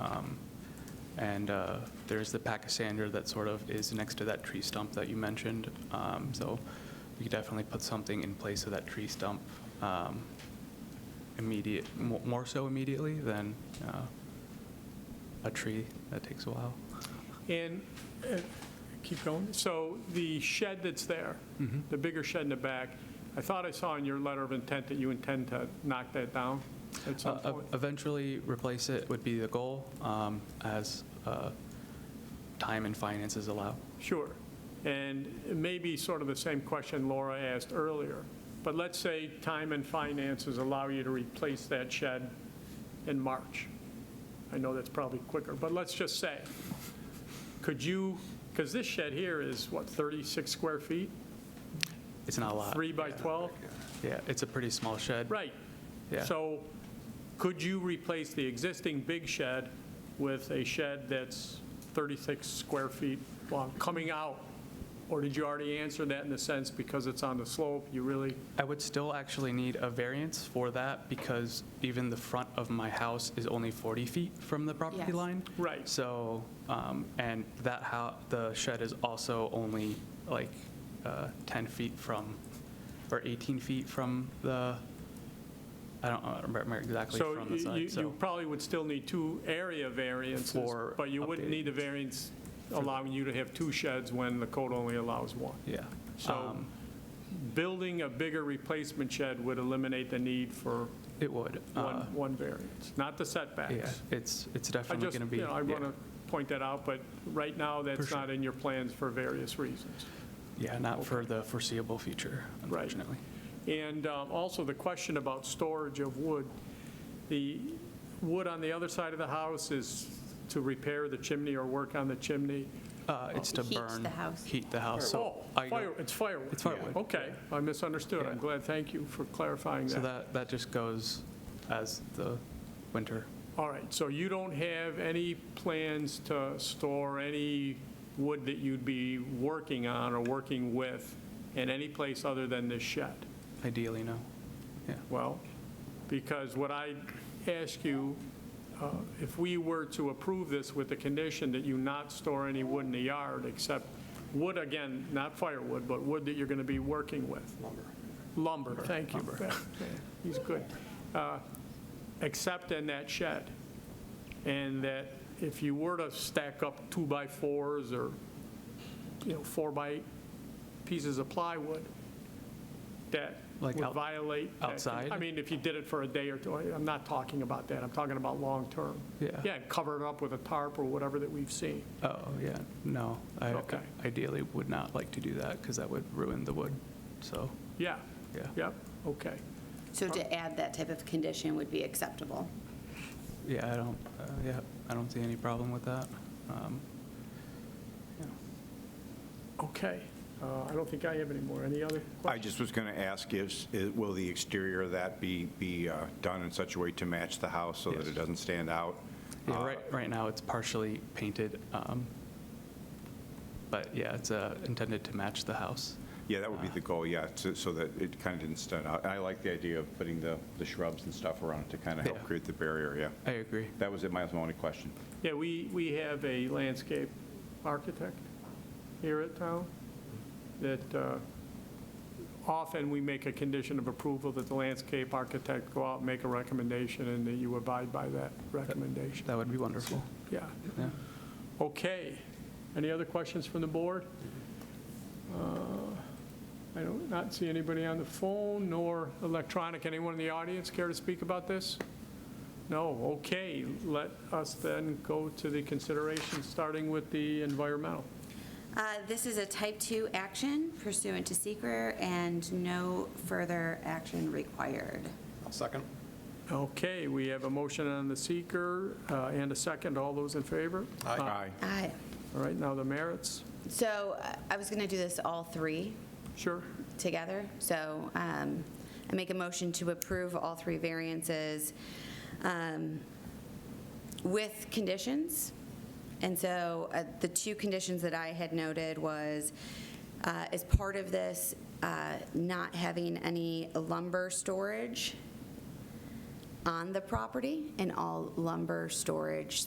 Um, And uh, there's the pachysandra that sort of is next to that tree stump that you mentioned. Um, So we could definitely put something in place of that tree stump um, immediate, mo- more so immediately than uh, a tree that takes a while. And, uh, keep going, so the shed that's there, Mm-hmm. the bigger shed in the back, I thought I saw in your letter of intent that you intend to knock that down at some Uh, point? Eventually, replace it would be the goal, um, as uh, time and finances allow. Sure. And maybe sort of the same question Laura asked earlier, but let's say time and finances allow you to replace that shed in March. I know that's probably quicker, but let's just say, could you, because this shed here is, what, 36 square feet? It's not a lot. Three by 12? Yeah, it's a pretty small shed. Right. Yeah. So could you replace the existing big shed with a shed that's 36 square feet long, coming out? Or did you already answer that in the sense because it's on the slope, you really, I would still actually need a variance for that because even the front of my house is only 40 feet from the property Yes. line. Right. So, um, and that how, the shed is also only like uh, 10 feet from, or 18 feet from the, I don't remember exactly so from the you- you side, so. you probably would still need two area variances. For But you wouldn't updating. need the variance allowing you to have two sheds when the code only allows one. Yeah. So Um, building a bigger replacement shed would eliminate the need for It would. uh, one, one variance, not the Yeah, setbacks. it's, it's I definitely just, going you to be. know, I yeah. want to point that out, but right now, that's sure. not in your plans for various reasons. Yeah, not for the foreseeable future, Right. unfortunately. And um, also the question about storage of wood. The wood on the other side of the house is to repair the chimney or work on the chimney. Uh, It's to Heat burn. the house. Heat the house. Oh, So I go- fire, it's firewood. It's firewood. Okay, I misunderstood. I'm Yeah. glad, thank you for clarifying So that, that. that just goes as the winter. All right, so you don't have any plans to store any wood that you'd be working on or working with in any place other than this shed? Ideally, no. Yeah. Well, because what I ask you, uh, if we were to approve this with the condition that you not store any wood in the yard, except wood, again, not firewood, but wood that you're going to be working with. Lumber. Lumber, thank you. He's good. Uh, Except in that shed. And that if you were to stack up two-by-fours or, you know, four-by pieces of plywood, that would Like out- violate. that con- outside? I mean, if you did it for a day or two, I- I'm not talking about that, I'm talking about long-term. Yeah. Yeah, cover it up with a tarp or whatever that we've seen. Oh, yeah, no. I Okay. Ideally would not like to do that because that would ruin the wood. So, Yeah, yeah. yep, okay. So to add that type of condition would be acceptable. Yeah, I don't, uh, yeah, I don't see any problem with that. Um, Okay, Uh, I don't think I have any more. Any other I questions? just was going to ask, is, is- will the exterior of that be, be uh, done in such a way to match the house so that Yes. it doesn't stand out? Yeah, Uh, right, right now it's partially painted. um, But yeah, it's uh, intended to match the house. Yeah, that would be the Uh-huh. goal, yeah, so so that it kind of didn't stand out. And I like the idea of putting the the shrubs and stuff around it to kind of Yeah. help create the barrier, yeah. I agree. That was it, my only question. Yeah, we, we have a landscape architect here at town that uh, often we make a condition of approval that the landscape architect go out and make a recommendation and that you abide by that recommendation. That would be wonderful. Yeah. Yeah. Okay. Any other questions from the board? Uh, I don't, not see anybody on the phone nor electronic. Anyone in the audience care to speak about this? No, okay. Let us then go to the consideration, starting with the environmental. Uh, This is a type-two action pursuant to seeker and no further action required. Okay, we have a motion on the seeker uh, and a second. All those in favor? Aye. Aye. All right, now the merits. So uh, I was going to do this all three Sure. together, so um, I make a motion to approve all three variances um, with conditions. And so uh, the two conditions that I had noted was, uh, as part of this, uh, not having any lumber storage on the property, and all lumber storage